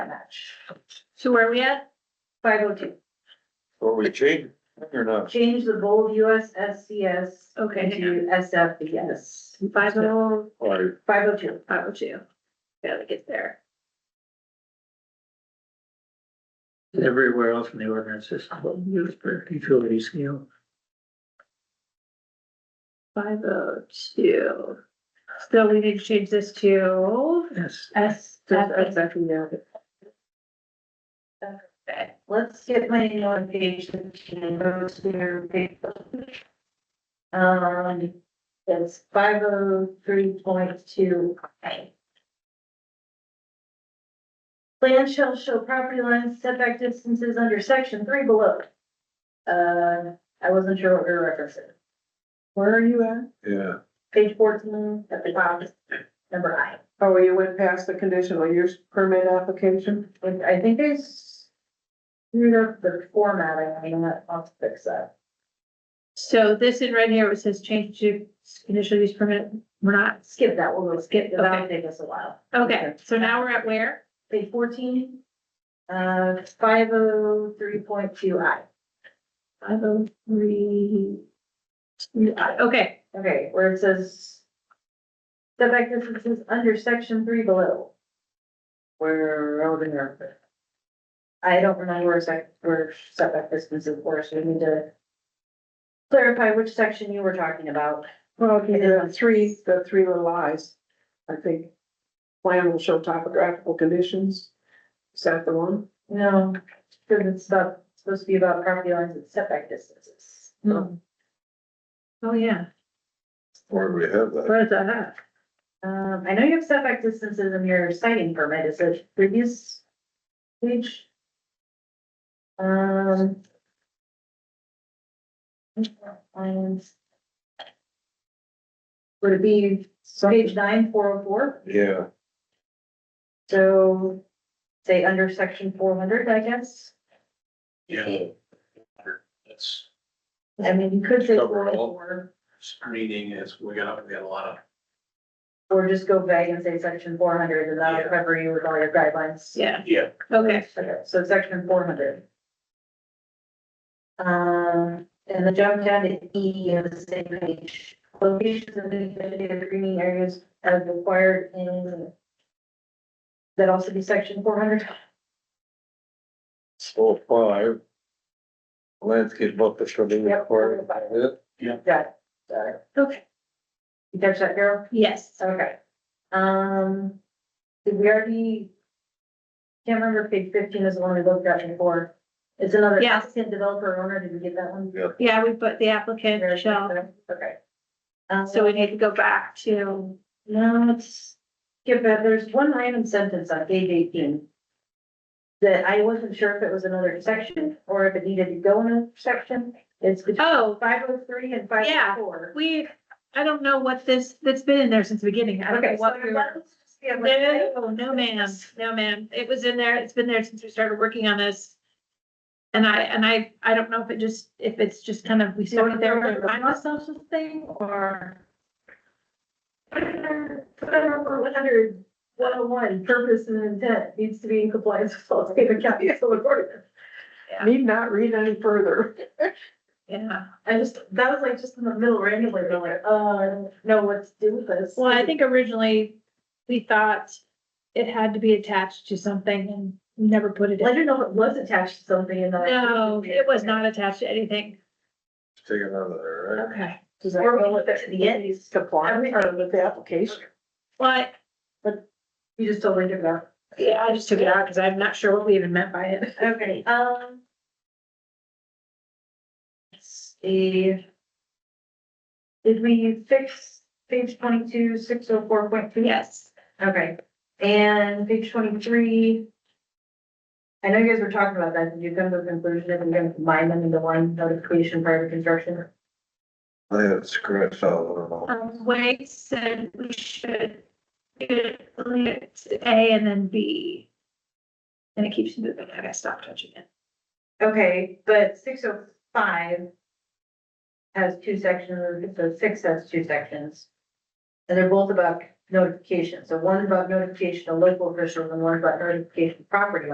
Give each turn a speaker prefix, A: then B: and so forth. A: match.
B: So where are we at?
A: Five oh two,
C: Or we change it or not?
A: change the bold USSCS
B: Okay,
A: into SFBS.
B: five oh,
C: Or
A: Five oh two,
B: five oh two. Gotta get there.
D: Everywhere else in the ordinance is used for utility scale.
B: Five oh two. So we need to change this to
D: Yes,
B: S.
D: actually now.
B: Okay.
A: let's get my notification to go to their page. Um, it's five oh three point two A. Plan shall show property lines setback distances under section three below. Uh, I wasn't sure what we were referencing.
E: Where are you at?
C: Yeah,
A: Page fourteen at the top, number I.
E: Oh, you went past the conditional use permit application?
A: And I think they screwed up the formatting, I mean, that- I'll fix that.
B: So this in right here, it says change to initial use permit. We're not,
A: Skip that, we'll go skip, that'll
B: Okay.
A: take us a while.
B: okay, so now we're at where?
A: Page fourteen, uh, five oh three point two I.
B: Five oh three. Okay,
A: Okay, where it says setback distances under section three below. Where, oh, there. I don't remember where sec, where setback distances were, so we need to clarify which section you were talking about.
E: Well, the three, the three little eyes, I think. Plan will show topographical conditions. Is that the one?
A: No, because it's about, it's supposed to be about property lines and setback distances.
B: Hmm. oh yeah,
C: or we have that.
B: what does that have?
A: Um, I know you have setback distances in your citing permit, is it previous page? Um. lines. Would it be page nine, four oh four,
C: Yeah,
A: so say under section four hundred, I guess?
F: Yeah. That's
A: I mean, you could say
C: Cover
A: four
C: it
A: oh
C: all.
A: four,
F: screening is, we got, we got a lot of,
A: or just go vague and say section four hundred, and that'll
F: Yeah.
A: cover you with all your guidelines.
B: Yeah,
F: yeah,
B: okay,
A: Okay, so section four hundred. Um, and the jump down to E of the same page, locations of vegetative greening areas as required in. That also be section four hundred,
C: so five. Landscape buffer shall be
A: Yep.
C: required. Yeah.
A: that, sorry,
B: okay,
A: you catch that, Carol?
B: yes,
A: Okay. Um, did we already? Can't remember if page fifteen is the one we looked at before, it's another
B: Yeah.
A: applicant developer owner, did we get that one?
B: yeah, we put the applicant shall,
A: Okay. Um,
B: so we need to go back to,
A: No, it's, yeah, but there's one random sentence on page eighteen. That I wasn't sure if it was another section or if it needed to go in a section. It's between
B: oh,
A: five oh three and five oh four.
B: we, I don't know what this, that's been in there since the beginning, I don't know
A: Okay, so
B: what we
A: we
B: were. No, no ma'am, no ma'am. It was in there, it's been there since we started working on this. And I, and I, I don't know if it just, if it's just kind of, we started there to remind ourselves of the thing or.
A: Put it over one hundred, one oh one, purpose and intent needs to be in compliance with all state and county code ordinance.
E: Need not read any further.
B: Yeah,
A: I just, that was like just in the middle randomly, they're like, uh, I don't know what to do with this.
B: well, I think originally we thought it had to be attached to something and we never put it
A: Well, I
B: in.
A: didn't know if it was attached to something and then. I-
B: No, it was not attached to anything.
C: Take it out of there, right?
B: Okay.
E: Does that
A: Or
E: go
A: we
E: with
A: look
E: the
A: to the end,
E: compliance or with the application?
B: But,
A: you just totally took it out.
B: yeah, I just took it out because I'm not sure what we even meant by it.
A: Okay, um. Let's see. Did we fix page twenty-two, six oh four point three?
B: Yes.
A: Okay, and page twenty-three. I know you guys were talking about that, did you come to a conclusion if we're gonna combine them into one notification prior to construction?
C: I had scratched out, I don't know.
B: Um, Wade said we should delete A and then B. And it keeps moving, I gotta stop touching it.
A: Okay, but six oh five has two sections, so six has two sections. And they're both about notification. So one about notification of local officials and one about notification of property